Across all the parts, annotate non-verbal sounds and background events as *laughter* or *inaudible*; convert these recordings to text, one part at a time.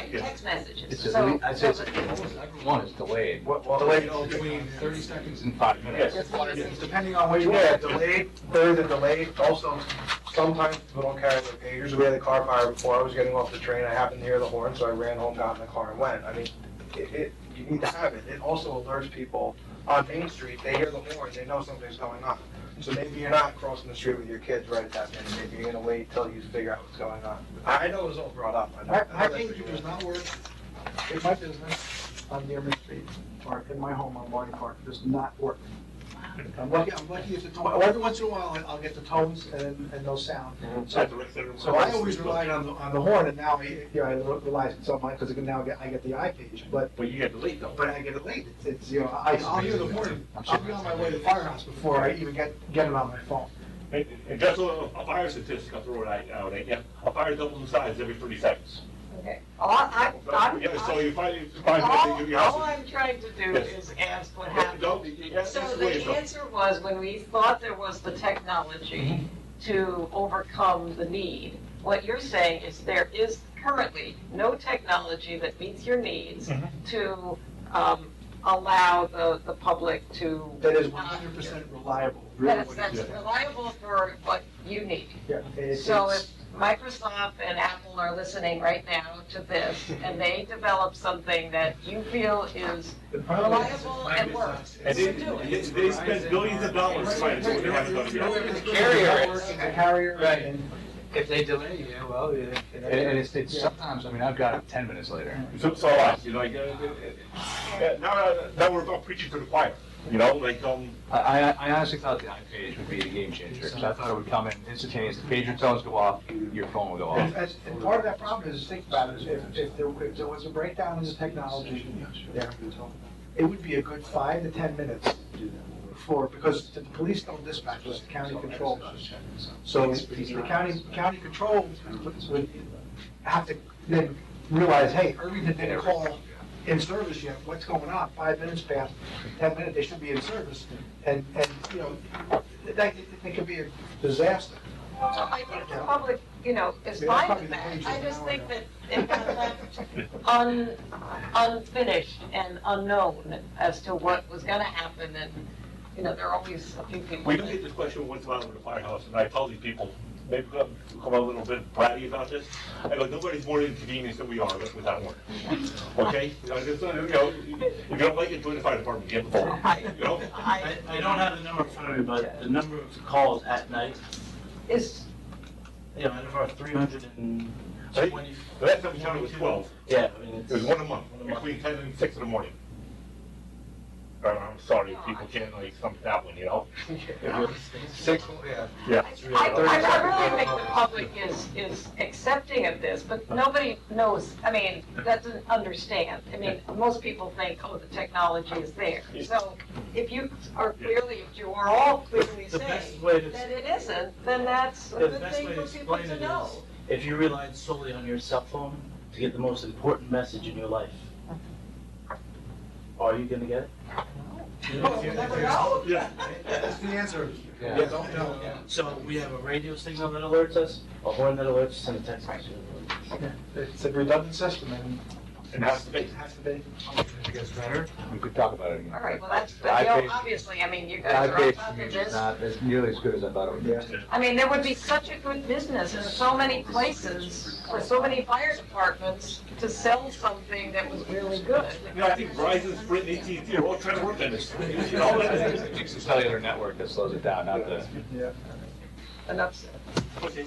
text messages, It's just, so. I said, one is delayed. What, well, Delayed. Between thirty seconds and five minutes. That's what it is. Depending on what you want, delayed, further delayed, also, sometimes people don't carry their pagers. We had a car fire before, I was getting off the train, I happened to hear the horn, so I ran home, got in the car and went. I mean, it, it, you need to have it. It also alerts people on Main Street, they hear the horn, they know something's going on. So maybe you're not crossing the street with your kids right at that minute, maybe you're gonna wait till you figure out what's going on. I I know it was all brought up. I know- My, I my know that's pager what you does want. not work in my business on Dearman Street or in my home on Barney Park, does not work. I'm lucky, I'm lucky if the, tow- every once in a while, I'll get the tones and, and no sound. Mhm. So, so I always relied on the, on the horn and now, I- yeah, I rely on something, because now I get, I get the iPage, but, But you had to leave though. but I get it late. It's- It's, you know, I, I'll hear the horn, I'll be on my way to the firehouse before I even get, get it on my phone. And and just a, a fire statistic, I'll throw it out, out at you. A fire doubles in size every thirty seconds. Okay. All I, I'm, Yeah, so you find, you find that all, you all have. I'm trying to do Yes. is ask what happened. So So the answer was, when we thought there was the technology Mm-hmm. to overcome the need, what you're saying is there is currently no technology that meets your needs Mm-hmm. Mhm. to um, allow the, the public to. That is one hundred percent reliable. really That's, what it that's is. reliable for what you need. Yeah, it's- So it's- if Microsoft and Apple are listening right now to this, and they develop something that you feel is The problem is- reliable and works, And you they, do they- it. they spend billions of dollars trying to. The carrier is- The carrier Right. and- If they delay you, well, you. And, and it's, it's sometimes, I mean, I've got it ten minutes later. So, so I, you know, like, uh, uh, uh, now, now we're about preaching to the choir, you know, like, um, I, I I honestly thought the iPage would be the game changer, because I thought it would come in instantaneous, the pager tones go off, your phone will go off. And and part of that problem is, think about it, is if, if there, if there was a breakdown in the technology there, it would be a good five to 10 minutes for, because the police don't dispatch us, the county control does. So the county, county control would have to then realize, hey, Irvington didn't call in service yet, what's going on? Five minutes past, 10 minutes, they should be in service. And, and, you know, that, that could be a disaster. Well, I think the public, you know, is Yeah, that's fine with probably the that. I page just now, think that it got left un, unfinished and unknown as to what was gonna happen and, you know, there are always a few people. we don't that- get this question once in a while in the firehouse, and I tell these people, maybe come, come a little bit bratty about this. I go, nobody's more inconvenienced than we are with that one, okay? You know, just, uh, you know, if you don't like it, join the fire department, get involved, you know? I, I, I don't have the number in front of me, but the number of calls at night, is, you know, out of our three hundred and Hey, twenty. The last time we counted was twelve. Yeah, I mean, it's. It was one a month, One a month. between ten and six in the morning. Uh, I'm sorry, people can't like stomach that one, you know? Six, yeah. I, I I really think the public is, is accepting of this, but nobody knows, I mean, doesn't understand. I mean, most people think, oh, the technology is there. So if you are clearly, if you are all clearly The saying, best way to- that it isn't, then that's a The good best thing way to for people explain to it know. is, *laughs* if you relied solely on your cell phone to get the most important message in your life, are you gonna get it? Well, we'll *laughs* never know. Yeah. That's the answer. Yeah. Yeah, don't know. So we have a radio signal that alerts us, a horn that alerts us, and a text message. that alerts us. It's a redundant system and And that's the it base. has to be. It gets better. We could talk about it again. All right, well, that's, The but, you know, iPad- obviously, I mean, you The guys are on iPage top to me of is this. not as nearly as good as I thought it would be. I mean, there would be such a good business in so many places, for so many fire departments, to sell something that was really good. You know, I think Verizon, Sprint, and AT&T are all trying to work on this. You know, It's and- the cellular network that slows it down, not the. Yeah. Enough said. Okay.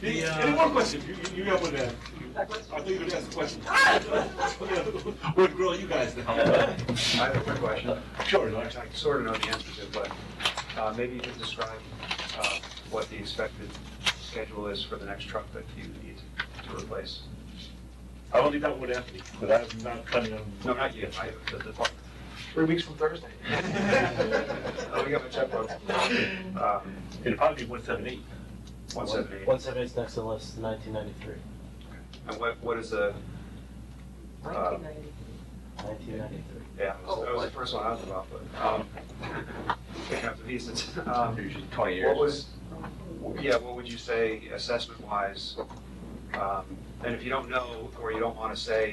The, uh, Any more questions? You, you- you have one there. I thought you were gonna ask a question. *laughs* We're gonna grill you guys now. I have a quick question. *laughs* Sure, I I sort of know the answer to, it, but uh, maybe you can describe uh, what the expected schedule is for the next truck that you need to replace. I only got one Anthony, but I'm not planning on. No, not yet, I, the department. Three weeks from Thursday. *laughs* Oh, we got my checkbook. Um, It'll probably be one seven eight. One seven eight. One seven eight's next on the list, nineteen ninety-three. And what, what is the, uh, Nineteen ninety-three. yeah, that was- that was the first one I was about, but, um, *laughs* picking up the pieces. Um, Usually twenty years. What was, yeah, what would you say assessment-wise? Um, And if you don't know, or you don't want to say,